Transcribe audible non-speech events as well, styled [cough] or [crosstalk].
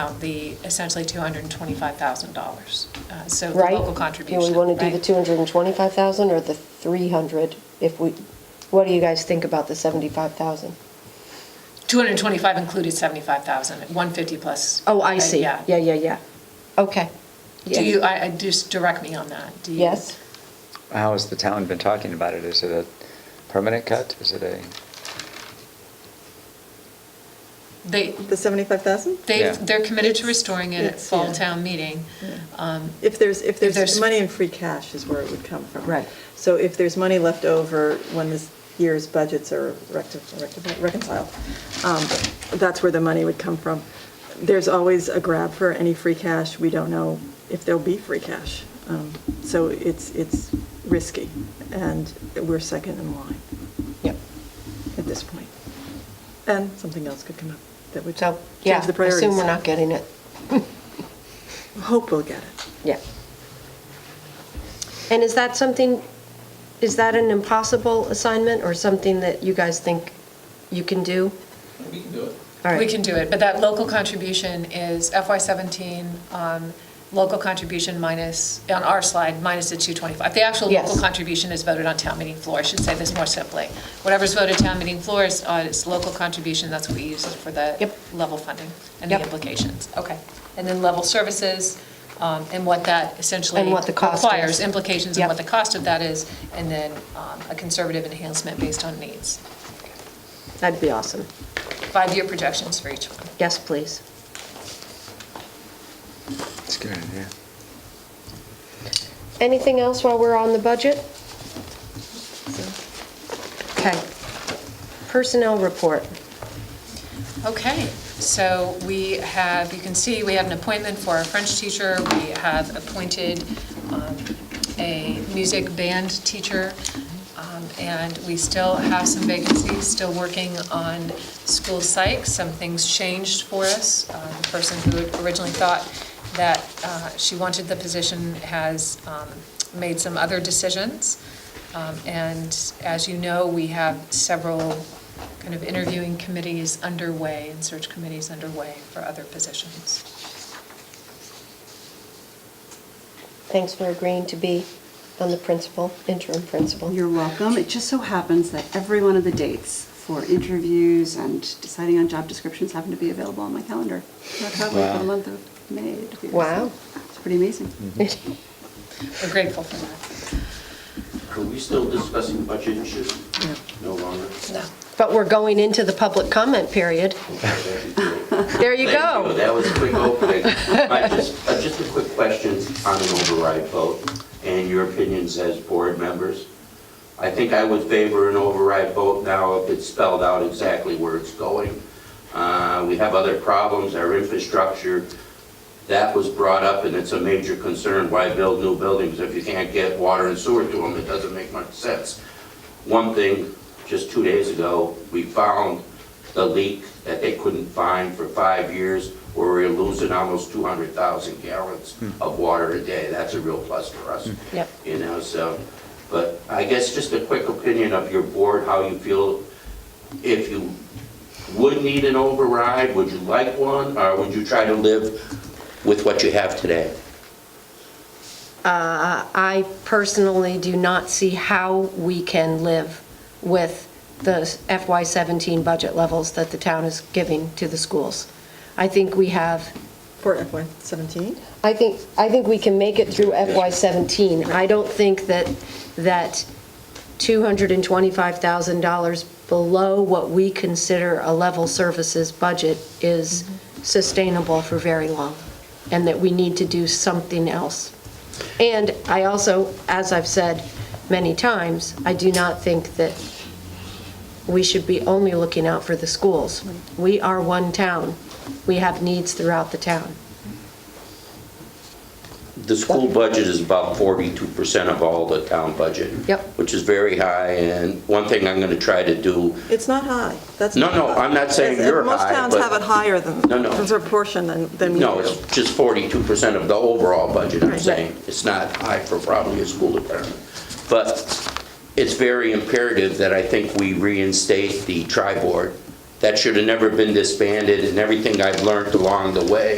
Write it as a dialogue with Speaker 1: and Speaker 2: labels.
Speaker 1: out the essentially $225,000, uh, so the
Speaker 2: right?
Speaker 1: local contribution.
Speaker 2: Do we want to do the
Speaker 1: right?
Speaker 2: 225,000 or the 300 if we, what do you guys think about the 75,000?
Speaker 1: 225 included 75,000, 150 plus.
Speaker 2: Oh, I
Speaker 1: uh,
Speaker 2: see.
Speaker 1: Yeah.
Speaker 2: Yeah, yeah, yeah. Okay.
Speaker 1: Do you, uh, I, I- just direct me on that. Do you-
Speaker 2: Yes?
Speaker 3: How has the town been talking about it? Is it a permanent cut? Is it a,
Speaker 1: They,
Speaker 4: The 75,000?
Speaker 1: they,
Speaker 3: Yeah.
Speaker 1: they're committed to restoring it at
Speaker 4: It's-
Speaker 1: fall
Speaker 4: yeah.
Speaker 1: town meeting. Um,
Speaker 4: If there's, if
Speaker 1: there's-
Speaker 4: there's money in free cash is where it would come from.
Speaker 2: Right.
Speaker 4: So if there's money left over when this year's budgets are recti- recti- reconciled, um, that's where the money would come from. There's always a grab for any free cash. We don't know if there'll be free cash. Um, So it's, it's risky, and we're second in line
Speaker 2: Yep.
Speaker 4: at this point. And something else could come up that would
Speaker 2: So,
Speaker 4: change
Speaker 2: yeah,
Speaker 4: the priorities.
Speaker 2: assume we're not getting it.
Speaker 4: Hope we'll get it.
Speaker 2: Yeah. And is that something, is that an impossible assignment or something that you guys think you can do?
Speaker 5: We can do it.
Speaker 2: All right.
Speaker 1: We can do it, but that local contribution is FY '17, um, local contribution minus, on our slide, minus the 225. The actual
Speaker 2: Yes.
Speaker 1: local contribution is voted on town meeting floor, I should say this more simply. Whatever's voted town meeting floor is, uh, is local contribution, that's what we use for the
Speaker 2: Yep.
Speaker 1: level funding and the
Speaker 2: Yep.
Speaker 1: implications. Okay. And then level services, um, and what that essentially
Speaker 2: And what the cost is.
Speaker 1: requires, implications and
Speaker 2: Yep.
Speaker 1: what the cost of that is, and then um, a conservative enhancement based on needs.
Speaker 2: That'd be awesome.
Speaker 1: Five-year projections for each one.
Speaker 2: Yes, please.
Speaker 3: it's good, yeah.
Speaker 2: Anything else while we're on the budget? Okay. Personnel report.
Speaker 1: Okay, so we have, you can see, we had an appointment for our French teacher. We have appointed um, a music band teacher, um, and we still have some vacancies, still working on school psych. Some things changed for us. Uh, The person who had originally thought that uh, she wanted the position has um, made some other decisions. Um, And as you know, we have several kind of interviewing committees underway and search committees underway for other positions.
Speaker 2: Thanks for agreeing to be on the principal, interim principal.
Speaker 6: You're welcome. It just so happens that every one of the dates for interviews and deciding on job descriptions happen to be available on my calendar. That's how we for
Speaker 3: Wow.
Speaker 6: the month of May. to be-
Speaker 2: Wow.
Speaker 6: It's pretty amazing.
Speaker 1: We're grateful for that.
Speaker 7: Are we still discussing budget issues? No longer?
Speaker 1: No.
Speaker 2: [laughs] But we're going into the public comment period. There you
Speaker 7: Thank
Speaker 2: go.
Speaker 7: That was a quick opening. I just, uh, just a quick question on an override vote and your opinions as board members. I think I would favor an override vote now if it's spelled out exactly where it's going. Uh, We have other problems, our infrastructure, that was brought up and it's a major concern. Why build new buildings if you can't get water and sewer to them? It doesn't make much sense. One thing, just two days ago, we found the leak that they couldn't find for five years, where we're losing almost 200,000 gallons of water a day. That's a real plus for us.
Speaker 2: Yep.
Speaker 7: You know, so, but I guess just a quick opinion of your board, how you feel, if you would need an override, would you like one, or would you try to live with what you have today?
Speaker 2: Uh, I personally do not see how we can live with the FY17 budget levels that the town is giving to the schools. I think we have
Speaker 4: For FY17?
Speaker 2: I think, I think we can make it through FY '17. I don't think that, that $225,000 below what we consider a level services budget is sustainable for very long, and that we need to do something else. And I also, as I've said many times, I do not think that we should be only looking out for the schools. We are one town. We have needs throughout the town.
Speaker 7: The school budget is about forty-two percent of all the town budget.
Speaker 2: Yep.
Speaker 7: Which is very high, and one thing I'm gonna try to do,
Speaker 4: It's not high. That's
Speaker 7: No,
Speaker 4: not
Speaker 7: no,
Speaker 4: high.
Speaker 7: I'm not saying
Speaker 4: As-
Speaker 7: you're
Speaker 4: Most
Speaker 7: high,
Speaker 4: towns
Speaker 7: but-
Speaker 4: have it higher than,
Speaker 7: No, no.
Speaker 4: as a proportion than, than we do.
Speaker 7: no, it's just forty-two percent of the overall budget, I'm
Speaker 4: Right.
Speaker 7: saying. It's not high for probably a school department. But it's very imperative that I think we reinstate the tri-board. That should have never been disbanded, and everything I've learned along the way